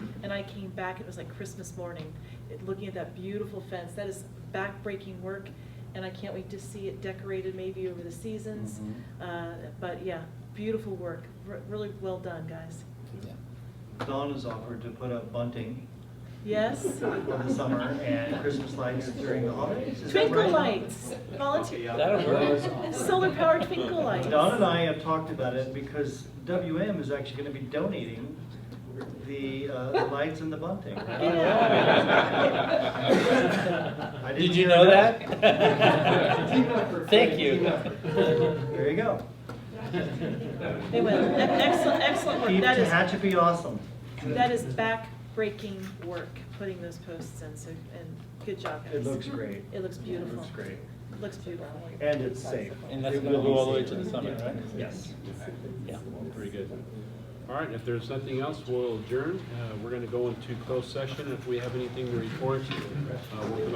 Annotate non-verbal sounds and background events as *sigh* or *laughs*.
and I came back, it was like Christmas morning, it- looking at that beautiful fence. That is backbreaking work, and I can't wait to see it decorated maybe over the seasons. Mm-hmm. Mhm. Uh, But yeah, beautiful work, Re- really well done, guys. Yeah. Dawn has offered to put up bunting Yes? for uh, *laughs* the summer and Christmas lights during the holidays. Is that Twinkle right? lights, volunteer. That'll work. Solar powered twinkle lights. Dawn and I have talked about it because WM is actually going to be donating the uh, the lights and the *laughs* bunting. Yeah. I didn't Did you hear know that. that? Thank you. There you go. They will. E- Excellent, excellent work. Keep That is, Tehachapi awesome. that is backbreaking work, putting those posts in, so, and good job, guys. It looks great. It looks beautiful. Looks great. Looks beautiful. And it's safe. And that's It gonna will go be all the way safe. to the summit, right? Yes. Yeah. Very good. All right, if there's nothing else, we'll adjourn. Uh, We're going to go into closed session. If we have anything to report, uh, we'll come